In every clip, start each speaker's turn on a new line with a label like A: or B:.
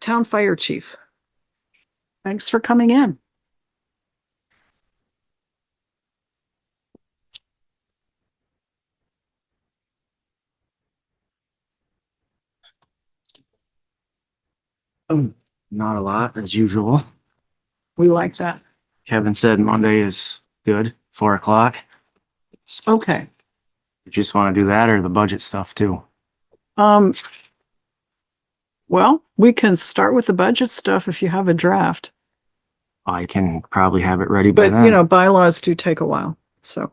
A: Town Fire Chief. Thanks for coming in.
B: Not a lot, as usual.
A: We like that.
B: Kevin said Monday is good, four o'clock.
A: Okay.
B: You just want to do that or the budget stuff too?
A: Um, well, we can start with the budget stuff if you have a draft,
B: I can probably have it ready by
A: but
B: then.
A: you know, bylaws do take a while, so.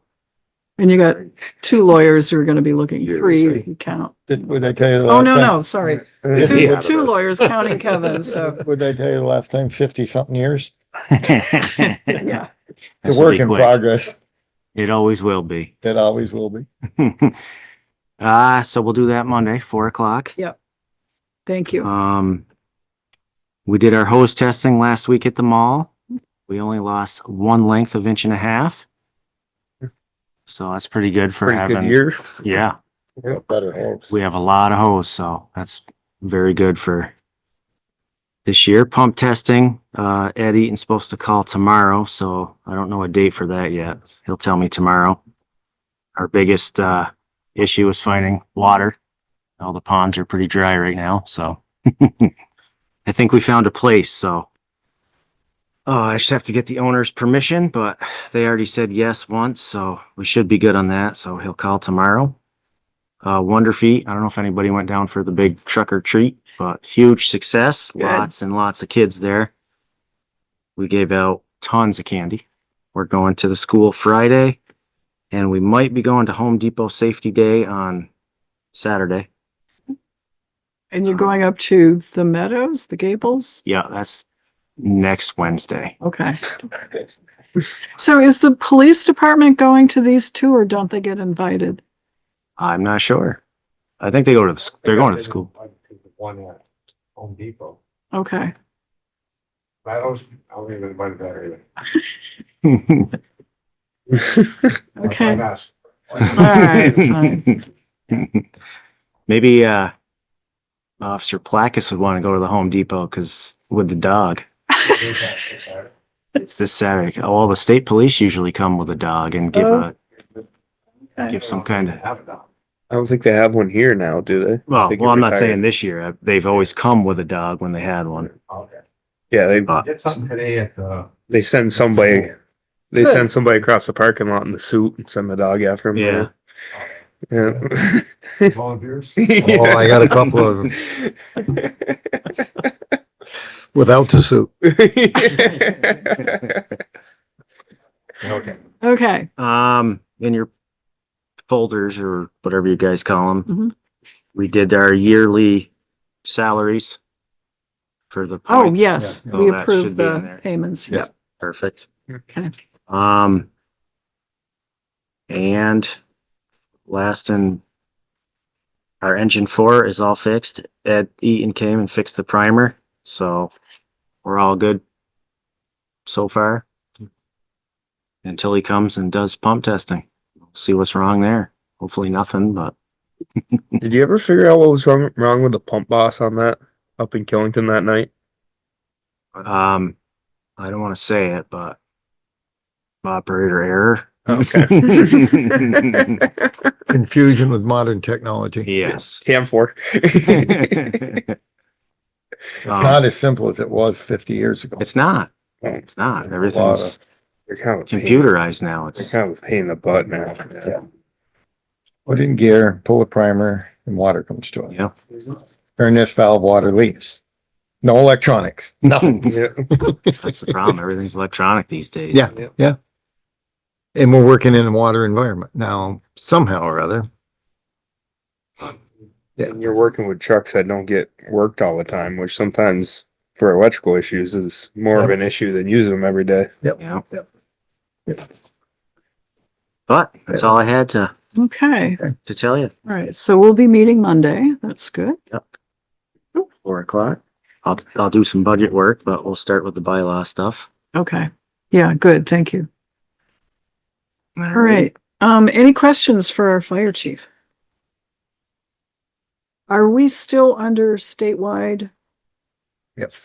A: And you got two lawyers who are going to be looking,
C: Years,
A: three
C: right?
A: if you count.
C: Did, would I tell you the
A: Oh,
C: last
A: no,
C: time?
A: no, sorry.
C: Would I tell you-
A: Two, two lawyers counting Kevin, so,
C: Would I tell you the last time fifty something years?
A: yeah.
C: It's
B: This'll
C: a work
B: be
C: in
B: quick.
C: progress.
B: It always will be.
C: It always will be.
B: Ah, so we'll do that Monday, four o'clock.
A: Thank you.
B: Um, we did our hose testing last week at the mall. We only lost one length of inch and a half. So that's pretty good for having,
C: year.
B: yeah.
C: Better hopes.
B: We have a lot of hose, so that's very good for this year. Pump testing, uh, Ed Eaton's supposed to call tomorrow, so I don't know a date for that yet. He'll tell me tomorrow. Our biggest, uh, issue is finding water. All the ponds are pretty dry right now, so. I think we found a place, so. Uh, I just have to get the owner's permission, but they already said yes once, so we should be good on that, so he'll call tomorrow uh, Wonder Feet. I don't know if anybody went down for the big truck or treat, but huge success.
A: Good.
B: Lots and lots of kids there. We gave out tons of candy. We're going to the school Friday and we might be going to Home Depot Safety Day on Saturday.
A: And you're going up to the Meadows, the Gables?
B: Yeah, that's next Wednesday.
A: Okay. So is the police department going to these two or don't they get invited?
B: I'm not sure. I think they go to the, s- they're going to the school.
D: One at Home Depot.
A: Okay.
D: I don't, I don't even invite that either.
A: Okay.
D: Why not?
A: All right, fine.
B: Maybe, uh, Officer Placus would want to go to the Home Depot because with the dog, it's this Saturday. All the state police usually come with a dog and give a, give some kind of,
D: Have it now.
E: I don't think they have one here now, do they? I
B: well,
E: think
B: well,
E: it
B: I'm not
E: retired.
B: saying this year. uh, They've always come with a dog when they had one.
D: Okay.
E: Yeah, they
B: Uh,
D: Did something today at the.
E: they send somebody they
A: Good.
E: send somebody across the parking lot in the suit and send the dog after him.
B: Yeah.
E: Yeah.
D: Volunteers?
C: Oh, I got a couple of them without the suit.
D: Okay.
A: Okay.
B: Um, in your folders or whatever you guys call them.
A: Mhm.
B: We did our yearly salaries for the.
A: Oh,
B: points.
A: yes,
B: Yeah.
A: we
B: So that
A: approve
B: should be in
A: the
B: there.
A: payments.
C: Yeah.
A: Yep.
B: Perfect.
A: Okay.
B: Um. And last and our engine four is all fixed. Ed Eaton came and fixed the primer, so we're all good so far. Until he comes and does pump testing. See what's wrong there. Hopefully nothing, but
E: Did you ever figure out what was wrong wrong with the pump boss on that up in Killington that night?
B: um I don't want to say it, but operator error.
E: Okay.
C: Confusion with modern technology.
B: Yes.
E: Cam four.
C: It's
B: Um,
C: not as simple as it was fifty years ago.
B: It's not.
E: Right.
B: It's not.
C: There's a
B: Everything's
E: They're kind of a pain-
B: computerized now.
E: They're
B: It's,
E: kind of a pain in the butt now.
C: Put in gear, pull a primer and water comes to it.
B: yeah.
C: Turn this valve, water leaves. No electronics.
E: Yeah.
B: That's the problem. Everything's electronic these days.
C: Yeah. And we're working in a water environment now somehow or other. Yeah.
E: And you're working with trucks that don't get worked all the time, which sometimes for electrical issues is more of an issue than using them every day.
B: Yeah. But that's all I had to,
A: Okay.
B: to tell you.
A: All right. So we'll be meeting Monday. That's good.
B: Four o'clock. I'll, I'll do some budget work, but we'll start with the bylaw stuff.
A: Okay. Yeah, good. Thank you. All right. Um, any questions for our fire chief? Are we still under statewide
C: Yep.